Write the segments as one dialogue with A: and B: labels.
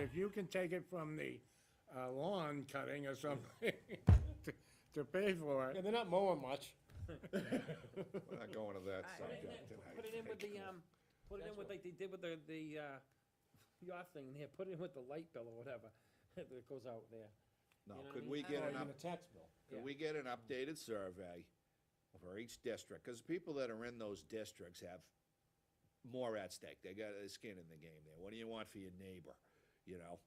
A: If you can take it from the uh, lawn cutting or something to- to pay for
B: Yeah,
A: it,
B: they're not mowing much.
C: We're not going to that
D: Put it in-
C: subject tonight.
D: Put it in with the, um, put it in with like they did with the, the, uh, your thing there, put it in with the light bill or whatever, that goes out there.
C: No,
D: you know what I
C: could
D: mean?
C: we get
B: Or
C: an
B: even
C: up,
B: a tax bill.
D: yeah.
C: could we get an updated survey for each district? Because people that are in those districts have more at stake. They got their skin in the game there. What do you want for your neighbor, you know?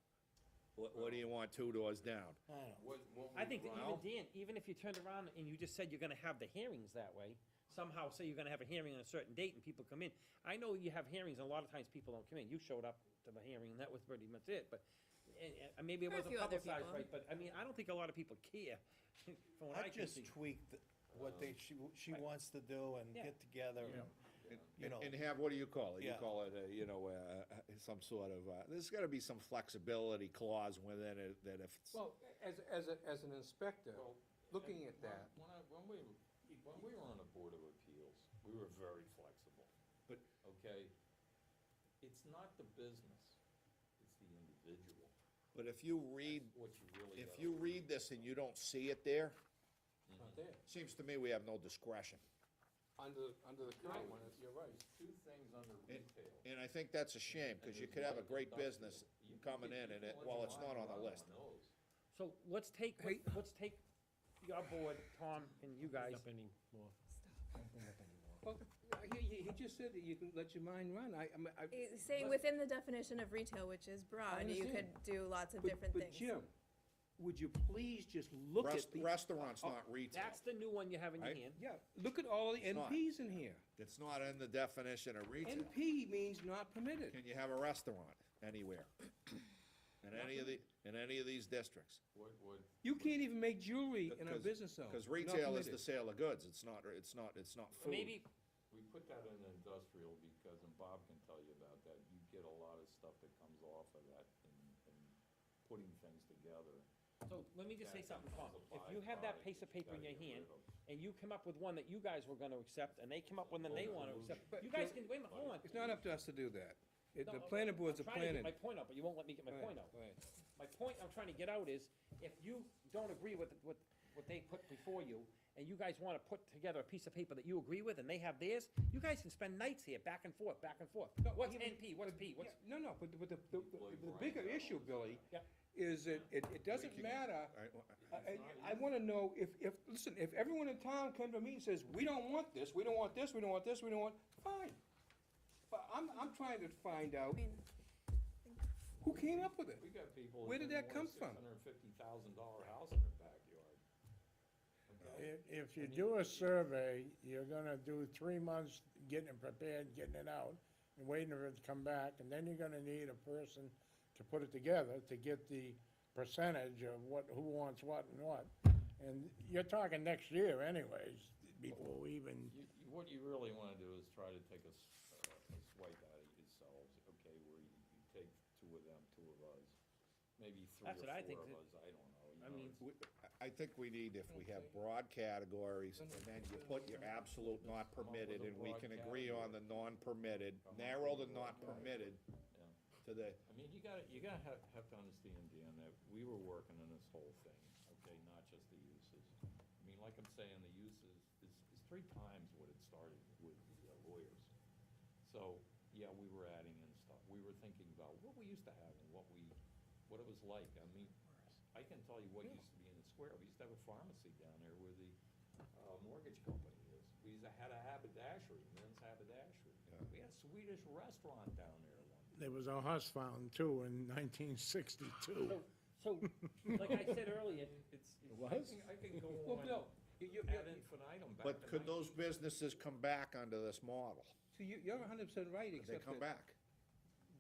C: What, what do you want two doors down?
E: What, what
D: I think that even
C: Well-
D: Dan, even if you turned around and you just said you're gonna have the hearings that way, somehow say you're gonna have a hearing on a certain date and people come in. I know you have hearings, and a lot of times people don't come in. You showed up to the hearing and that was pretty much it, but, and, and maybe it
F: There were a
D: wasn't
F: few other
D: publicized
F: people.
D: right, but, I mean, I don't think a lot of people care, from what I
G: I
D: can
G: just
D: see.
G: tweaked what they, she, she
D: Right.
G: wants to do and
D: Yeah.
G: get together. and- You
C: And-
G: know.
C: And have, what do you call it? You
G: Yeah.
C: call it, a, you know, uh, uh, some sort of, uh, there's gotta be some flexibility clause within it that if, it's-
H: Well, as, as, a- as an inspector,
E: Well,
H: looking at that,
E: When I, when we, when we were on the Board of Appeals, we were very flexible.
C: But-
E: Okay, it's not the business, it's the individual,
C: but if you read,
E: what you really.
C: if
E: gotta
C: you
E: do. Mm-hmm.
C: read this and you don't see it there,
H: it's not there,
C: seems to me we have no discretion.
H: under, under the current one, you're right.
E: There's Two things under retail.
C: And I think that's a shame,
E: and
C: because you
E: there's
C: could have a
E: light
C: great
E: industrial.
C: business
E: You could
C: coming
E: get
C: in and it,
E: people
C: while
E: your
C: it's
E: mind
C: not on the
E: running
C: list.
E: those.
D: So let's take, let's take your board, Tom, and you guys,
B: Up anymore.
H: Well, he, Uh, he, he just said that you can let your mind run, I, I mean, I.
F: It's Saying Eh, within the definition of retail, which is broad, you
H: understand.
F: could do lots of
H: But-
F: different
H: But
F: things.
H: Jim, would you please just look
C: Rest-
H: at the, Oh,
C: Restaurants, not retail.
D: that's the new one you have in your
C: Right.
D: hand.
H: yeah, look at all the
C: It's not.
H: NPs in here.
C: It's not in the definition of retail.
H: NP means not permitted.
C: Can you have a restaurant anywhere? In any of the, in any of these districts?
E: What, what,
H: You can't even make jewelry in our
C: 'Cause-
H: business zone.
C: Because
H: Not
C: retail is the
H: permitted.
C: sale of goods, it's not, it's not, it's not food.
D: Maybe,
E: we put that in industrial because, and Bob can tell you about that, you get a lot of stuff that comes off of that in, in putting things together.
D: so let me just say
E: that
D: something, Tom.
E: becomes a
D: If you have that
E: byproduct
D: piece of
E: you
D: paper in
E: gotta
D: your
E: get
D: hand
E: rid of.
D: and you come up with one that you guys were gonna accept and they come up with one they wanna accept,
H: But
D: you guys
H: you're-
D: can, wait a minute, hold on.
H: It's not up to us to do that. It-
D: No,
H: The
D: I'm-
H: planning board's a
D: I'm trying to
H: planning.
D: get my point out, but you won't let me get my point out. My point I'm trying to get out is, if you don't agree with, with, what they put before you, and you guys wanna put together a piece of paper that you agree with and they have theirs, you guys can spend nights here, back and forth, back and forth. What's NP, what's P, what's,
H: No, no, but, the- but the, the,
E: Blame
H: the
E: Brian
H: bigger
E: for all
H: issue,
E: this.
H: Billy,
D: Yep.
H: is that it, it doesn't matter,
C: All right, well,
H: I, I- I wanna know if, if, listen, if everyone in town came to me and says, we don't want this, we don't want this, we don't want this, we don't want, fine. But I'm, I'm trying to find out who came up with it.
E: We got people.
H: Where did that come from?
E: Six hundred and fifty thousand dollar house in their backyard. Okay?
A: if, if you do a survey, you're gonna do three months getting it prepared, getting it out, and waiting for it to come back, and then you're gonna need a person to put it together to get the percentage of what, who wants what and what. And you're talking next year anyways, before we even
E: You, you, what you really wanna do is try to take a, s- uh, a swipe at it yourselves, okay, where you, you take two of them, two of us, maybe three or
D: That's
E: four
D: what I think
E: of
D: that-
E: us, I don't know, you
D: I
E: know,
D: mean,
E: it's-
C: we- I think we need, if we have broad categories, and then you put your absolute not permitted, and we can agree on the non-permitted, narrow the not permitted to the,
E: I mean, you gotta, you gotta have, have to understand, Dan, that we were working on this whole thing, okay, not just the uses. I mean, like I'm saying, the uses is, is three times what it started with the uh, lawyers. So, yeah, we were adding in stuff, we were thinking about what we used to have and what we, what it was like, I mean, I can tell you what used to be in the square, we used to have a pharmacy down there where the, uh, mortgage company is. We used to had a haberdashery, men's haberdashery, we had a Swedish restaurant down there one time.
A: There was a house found too in nineteen sixty-two.
D: so, so, like I said earlier,
E: It's. it's-
C: It
E: I
C: was?
E: can- I can go
H: Well,
E: on
H: Bill, you, you,
E: ad infinitum back
C: but
E: to
C: could those
E: 19
C: businesses come back under this model?
H: so you, you're hundred percent right,
C: Could they
H: except
C: come
H: that
C: back?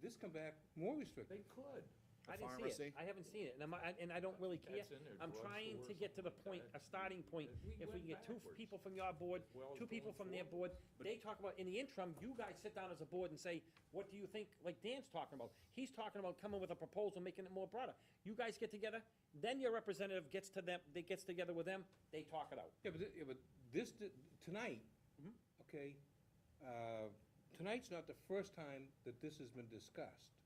H: this come back more restricted.
E: They could.
D: I
C: The
D: didn't see
C: pharmacy?
D: it, I haven't seen it, and I'm, I- and I don't really care.
E: That's in there,
D: I'm
E: drugstore
D: trying
E: or
D: to get to the
E: something
D: point, a
E: like that.
D: starting point,
E: We
D: if we
E: went
D: can get two f-
E: backwards.
D: people from your board,
E: Well,
D: two people from
E: going
D: their board,
E: forward.
D: they talk about, in the interim, you guys sit down as a board and say, what do you think, like Dan's talking about, he's talking about coming with a proposal, making it more broader. You guys get together, then your representative gets to them, they gets together with them, they talk it out.
H: Yeah, but, thi- yeah, but this, di- tonight, Mm-hmm. okay, uh, tonight's not the first time that this has been discussed.